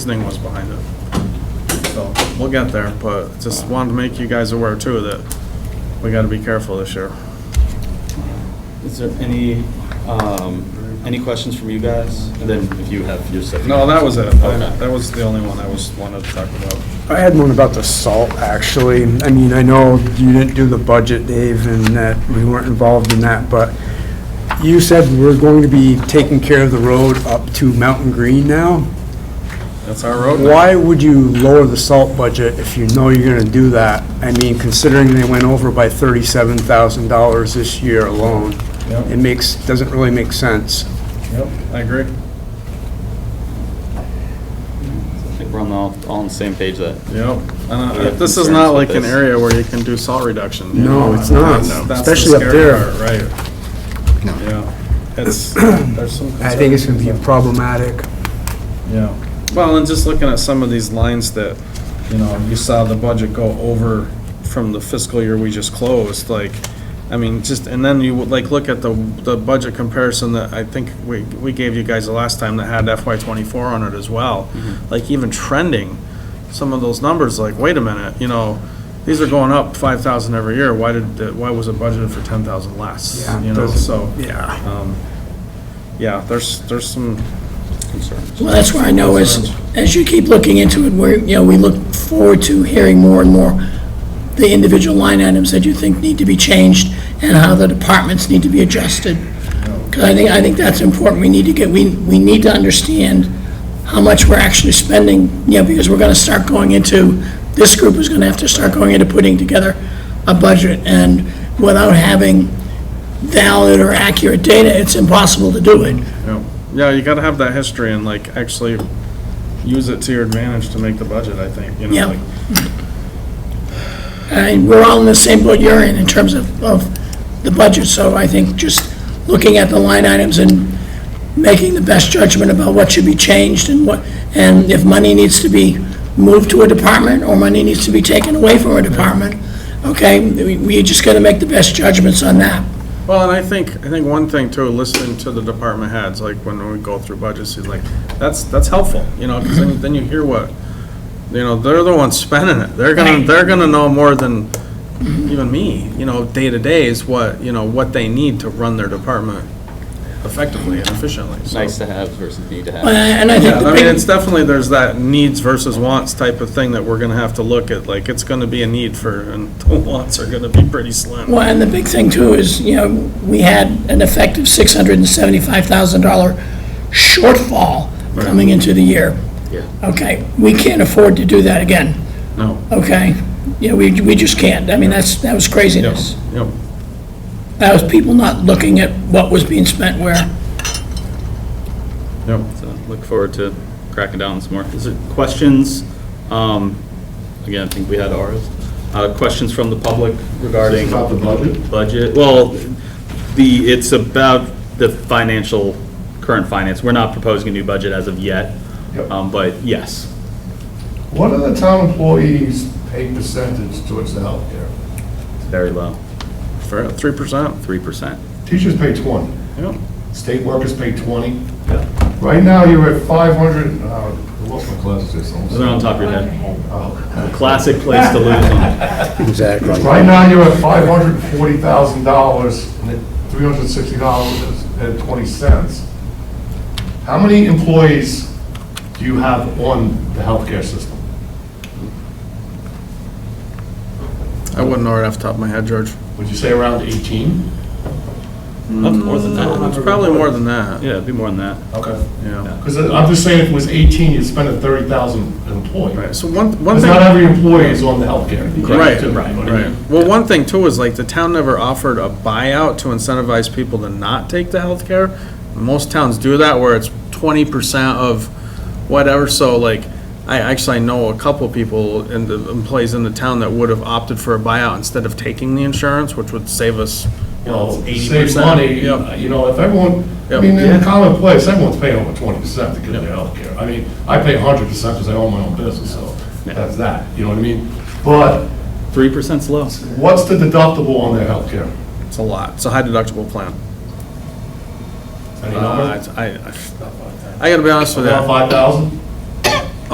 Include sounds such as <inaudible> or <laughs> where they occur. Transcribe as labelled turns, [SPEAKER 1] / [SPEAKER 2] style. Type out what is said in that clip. [SPEAKER 1] reasoning was behind it. So, we'll get there, but just wanted to make you guys aware too that we gotta be careful this year.
[SPEAKER 2] Is there any, um, any questions from you guys? And then if you have your stuff.
[SPEAKER 1] No, that was it.
[SPEAKER 2] Okay.
[SPEAKER 1] That was the only one I was, wanted to talk about.
[SPEAKER 3] I had one about the salt, actually. I mean, I know you didn't do the budget, Dave, and that we weren't involved in that, but you said we're going to be taking care of the road up to Mountain Green now?
[SPEAKER 1] That's our road. now.
[SPEAKER 3] Why would you lower the salt budget if you know you're gonna do that? I mean, considering they went over by thirty-seven thousand dollars this year alone,
[SPEAKER 1] Yep.
[SPEAKER 3] it makes, doesn't really make sense.
[SPEAKER 1] Yep, I agree.
[SPEAKER 2] I think we're on the, all all on the same page that,
[SPEAKER 1] Yep. And, uh,
[SPEAKER 2] Yeah,
[SPEAKER 1] This is
[SPEAKER 2] concerns
[SPEAKER 1] not
[SPEAKER 2] with
[SPEAKER 1] like an
[SPEAKER 2] this.
[SPEAKER 1] area where you can do salt reduction. you
[SPEAKER 3] No,
[SPEAKER 1] know?
[SPEAKER 3] it's not,
[SPEAKER 1] That's- that's the
[SPEAKER 3] especially up
[SPEAKER 1] scary
[SPEAKER 3] there.
[SPEAKER 1] part, Right. Yeah.
[SPEAKER 2] <clears throat>
[SPEAKER 1] It's, there's some.
[SPEAKER 3] I think it's gonna be
[SPEAKER 1] concerns.
[SPEAKER 3] problematic.
[SPEAKER 1] Yeah. Well, and just looking at some of these lines that, you know, you saw the budget go over from the fiscal year we just closed, like, I mean, just, and then you would, like, look at the, the budget comparison that I think we, we gave you guys the last time that had FY twenty-four on it as well.
[SPEAKER 3] Mm-hmm.
[SPEAKER 1] Like, even trending, some of those numbers, like, wait a minute, you know, these are going up five thousand every year, why did, the- why was it budgeted for ten thousand less?
[SPEAKER 3] Yeah,
[SPEAKER 1] You know,
[SPEAKER 3] doesn't-
[SPEAKER 1] so,
[SPEAKER 3] Yeah.
[SPEAKER 1] um, yeah, there's, there's some
[SPEAKER 2] concerns.
[SPEAKER 4] Well, that's where I know is, as you keep looking into it, where, you know, we look forward to hearing more and more the individual line items that you think need to be changed and how the departments need to be adjusted. Because I think, I think that's important. We need to get, we, we need to understand how much we're actually spending, you know, because we're going to start going into, this group is going to have to start going into putting together a budget. And without having valid or accurate data, it's impossible to do it.
[SPEAKER 1] Yeah, yeah, you gotta have that history and like actually use it to your advantage to make the budget, I think, you know,
[SPEAKER 4] Yeah.
[SPEAKER 1] like,
[SPEAKER 4] And we're all in the same boat you're in, in terms of, of the budget, so I think just looking at the line items and making the best judgment about what should be changed and what, and if money needs to be moved to a department, or money needs to be taken away from a department, okay, we, we just gotta make the best judgments on that.
[SPEAKER 1] well, and I think, I think one thing too, listening to the department heads, like when we go through budgets, he's like, that's, that's helpful, you know, cause then, then you hear what, you know, they're the ones spending it, they're gonna,
[SPEAKER 4] Right.
[SPEAKER 1] they're gonna know more than even me, you know, day to day is what, you know, what they need to run their department effectively and efficiently, so.
[SPEAKER 2] Nice to have versus need to have.
[SPEAKER 4] Uh, And I think
[SPEAKER 1] Yeah,
[SPEAKER 4] the
[SPEAKER 1] I mean, it's
[SPEAKER 4] <laughs> big,
[SPEAKER 1] definitely, there's that needs versus wants type of thing that we're gonna have to look at, like, it's gonna be a need for, and <laughs> the wants are gonna be pretty slim.
[SPEAKER 4] well, and the big thing too is, you know, we had an effective six hundred and seventy-five thousand dollar shortfall coming into the year.
[SPEAKER 2] Yeah.
[SPEAKER 4] Okay, we can't afford to do that again,
[SPEAKER 1] No.
[SPEAKER 4] okay? You know, we, we just can't. I mean, that's, that was
[SPEAKER 1] Yep,
[SPEAKER 4] craziness.
[SPEAKER 1] yep,
[SPEAKER 4] That was people not looking at what was being spent where.
[SPEAKER 1] yep.
[SPEAKER 2] So look forward to cracking down on some more. Is there questions? Um, Again, I think we had ours. Uh, Questions from the public regarding?
[SPEAKER 5] Is this about the budget?
[SPEAKER 2] Budget, well, the, it's about the financial, current finance. We're not proposing a new budget as of yet,
[SPEAKER 5] Yep.
[SPEAKER 2] Um, but yes.
[SPEAKER 5] What are the town employees' pay percentage towards the healthcare?
[SPEAKER 2] Very low,
[SPEAKER 1] For three percent,
[SPEAKER 2] three percent.
[SPEAKER 5] Teachers pay 20,
[SPEAKER 1] yep.
[SPEAKER 5] state workers pay 20. Right now, you're at 500, uh, I lost my glasses
[SPEAKER 2] Is
[SPEAKER 5] just
[SPEAKER 2] that on
[SPEAKER 5] almost.
[SPEAKER 2] top of your head?
[SPEAKER 5] Oh.
[SPEAKER 2] Classic place to lose them.
[SPEAKER 3] Exactly.
[SPEAKER 5] Right now, you're at $540,000, and at $360 and 20 cents. How many employees do you have on the healthcare system?
[SPEAKER 1] I wouldn't know right off the top of my head, George.
[SPEAKER 5] Would you say around 18?
[SPEAKER 2] More than
[SPEAKER 1] It's
[SPEAKER 2] that.
[SPEAKER 1] probably more than that,
[SPEAKER 2] Yeah, it'd be more than that.
[SPEAKER 5] Okay.
[SPEAKER 1] yeah.
[SPEAKER 5] Because I'm just saying, if it was 18, you'd spend a 30,000 employee.
[SPEAKER 1] Right, so one, one
[SPEAKER 5] Because
[SPEAKER 1] thing.
[SPEAKER 5] not every employee is on the healthcare. You can't
[SPEAKER 1] Right,
[SPEAKER 5] do it.
[SPEAKER 1] Right. Well, one thing too is like the town never offered a buyout to incentivize people to not take the health care. Most towns do that where it's twenty percent of whatever, so like, I actually know a couple people in the employees in the town that would have opted for a buyout instead of taking the insurance, which would save us, you know,
[SPEAKER 5] Well, to
[SPEAKER 1] eighty
[SPEAKER 5] save
[SPEAKER 1] percent.
[SPEAKER 5] money, uh, you know, if everyone, I
[SPEAKER 1] Yep.
[SPEAKER 5] mean, in
[SPEAKER 1] Yeah.
[SPEAKER 5] the common place, everyone's paying over 20% to get their healthcare. I mean, I pay 100% because I own my own business, so that's that, you know what I mean? But
[SPEAKER 2] Three percent's low.
[SPEAKER 5] what's the deductible on their healthcare?
[SPEAKER 1] It's a lot. It's a high deductible plan.
[SPEAKER 5] Any
[SPEAKER 1] Uh,
[SPEAKER 5] number?
[SPEAKER 1] it's- I, I, I gotta be honest with you.
[SPEAKER 5] About 5,000?